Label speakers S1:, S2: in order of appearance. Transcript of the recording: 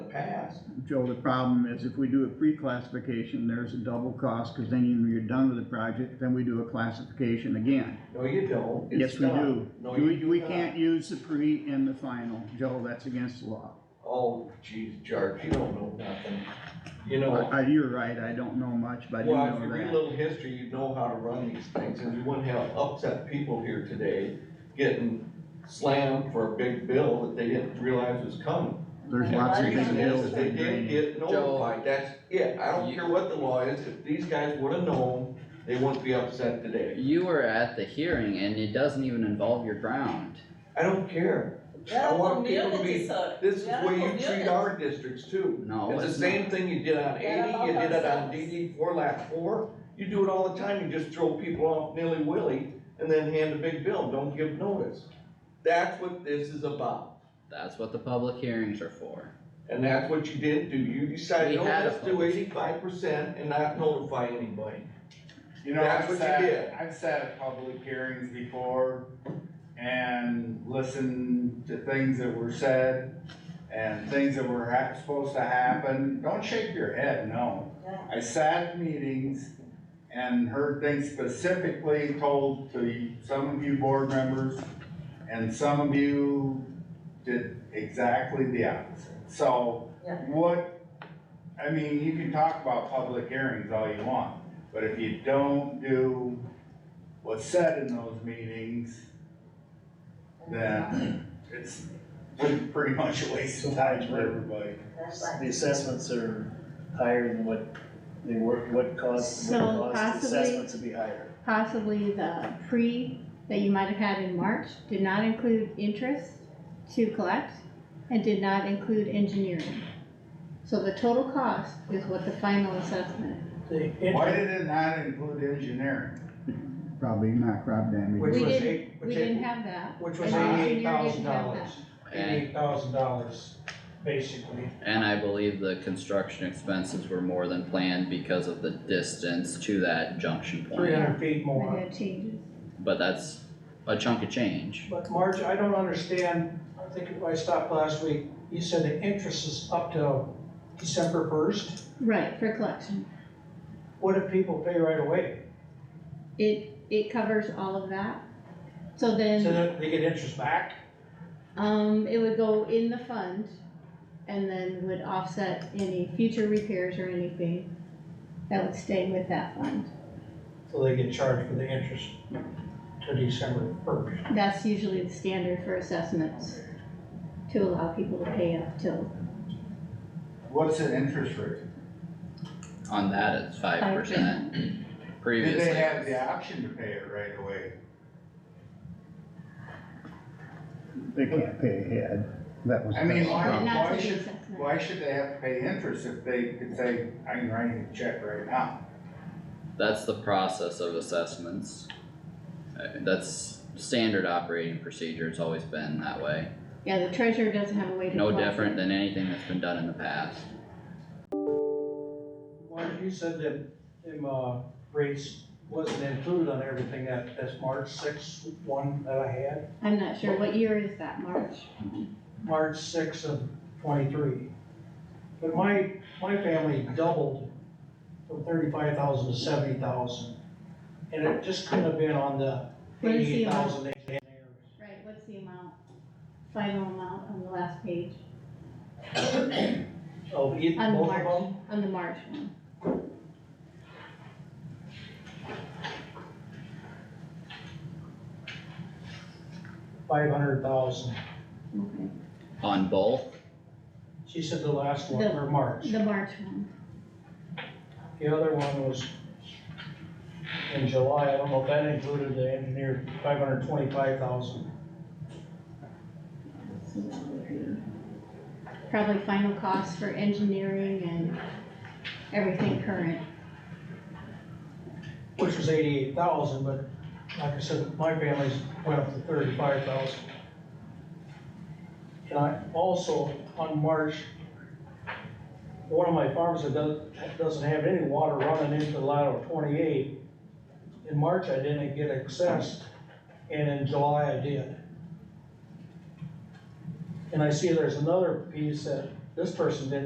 S1: Joe, the problem is if we do a pre-classification, there's a double cost, cause then when you're done with the project, then we do a classification again.
S2: No, you don't.
S1: Yes,
S2: It's
S1: we
S2: not.
S1: do.
S2: No, you
S1: We,
S2: do
S1: we
S2: not.
S1: can't use the pre and the final, Joe, that's against the law.
S2: Oh, geez, George, you don't know nothing. You know,
S1: I, Uh, you're right, I don't know much, but I do
S2: well, if you
S1: know
S2: read a
S1: that.
S2: little history, you'd know how to run these things, and you wouldn't have upset people here today getting slammed for a big bill that they didn't realize was coming.
S1: There's
S3: Yeah,
S1: lots of
S2: The
S1: big
S2: reason
S1: bills.
S2: is, they
S1: in
S2: didn't
S1: drainage.
S2: get notified, that's it, I don't
S3: You-
S2: care what the law is, if these guys would've known, they wouldn't be upset today.
S3: You were at the hearing and it doesn't even involve your ground.
S2: I don't care. I want people to be, this is the way you treat our districts too.
S3: No,
S2: It's the
S3: it's
S2: same
S3: not.
S2: thing you did on
S4: Yeah,
S2: eighty,
S4: about
S2: you did it on
S4: ourselves.
S2: DD four, lap four, you do it all the time, you just throw people off nilly-willy and then hand a big bill, and don't give notice. That's what this is about,
S3: That's what the public hearings are for.
S2: and that's what you didn't do, you decided,
S3: We
S2: oh,
S3: had a
S2: let's do
S3: public-
S2: eighty-five percent and not notify anybody.
S5: You know,
S2: That's
S5: I've
S2: what you did.
S5: sat, I've sat at public hearings before and listened to things that were said and things that were hap- supposed to happen. Don't shake your head, no. I sat in meetings and heard things specifically told to some of you board members and some of you did exactly the opposite. So
S4: Yeah.
S5: what, I mean, you can talk about public hearings all you want. But if you don't do what's said in those meetings, then it's pretty pretty much a waste of time for everybody.
S6: The assessments are higher than what they were, what caused, what
S7: So
S6: caused the
S7: possibly-
S6: assessments to be higher.
S7: Possibly the pre that you might have had in March did not include interest to collect and did not include engineering. So the total cost is what the final assessment is.
S6: The
S5: Why
S6: interest-
S5: did it not include engineering?
S1: Probably not crop damage.
S8: Which
S7: We
S8: was
S7: didn't-
S8: eight,
S7: We
S8: which
S7: didn't
S8: eight,
S7: have that.
S8: which was
S7: and
S8: eighty-eight
S7: engineer
S8: thousand
S7: didn't have
S8: dollars,
S7: that.
S3: And,
S8: eighty-eight thousand dollars, basically.
S3: and I believe the construction expenses were more than planned because of the distance to that junction
S8: Three
S3: point.
S8: hundred feet
S7: But
S8: more.
S7: that changes.
S3: But that's a chunk of change.
S8: But Marge, I don't understand, I think if I stopped last week, you said the interest is up till December first.
S7: Right, for collection.
S8: What if people pay right away?
S7: It, it covers all of that. So
S8: So
S7: then,
S8: that they get interest back?
S7: um, it would go in the fund and then would offset any future repairs or anything that would stay with that fund.
S8: So they get charged for the interest to December first.
S7: That's usually the standard for assessments, to allow people to pay up till
S5: What's the interest rate?
S3: On that, it's five
S7: five
S3: percent.
S7: ten.
S3: Previously.
S5: Did they
S3: it
S5: have
S3: was-
S5: the option to pay it right away?
S1: They can't pay ahead. That was.
S5: I mean, why,
S7: But not
S5: why
S7: till the
S5: should,
S7: assessment.
S5: why should they have to pay interest if they could say, I can write you a check right now?
S3: That's the process of assessments. Uh, That's standard operating procedure, it's always been that way.
S7: Yeah, the treasurer doesn't have a way to.
S3: No
S7: collect it.
S3: different than anything that's been done in the past.
S8: Marge, you said that them, uh, rates wasn't included on everything that, that's March sixth, one that I had.
S7: I'm not sure, what year is that, March?
S8: March sixth of twenty-three. But my, my family doubled from thirty-five thousand to seventy thousand. And it just couldn't have been on the
S7: What is the
S8: eighty
S7: amount?
S8: thousand they had there.
S7: Right, what's the amount, final amount on the last page,
S8: Oh, you-
S7: On
S8: both
S7: March.
S8: of them?
S7: on the March one?
S8: Five hundred thousand.
S7: Okay.
S3: On both,
S8: She said the last one
S7: The-
S8: for March.
S7: The March one,
S8: The other one was in July. I don't know if that included the engineer, five hundred twenty-five thousand.
S7: so that would be probably final cost for engineering and everything current.
S8: Which was eighty-eight thousand, but like I said, my family's went up to thirty-five thousand. And I also, on March, one of my farms that doesn't, doesn't have any water running into lateral twenty-eight, in March I didn't get accessed, and in July I did. And I see there's another piece that this person didn't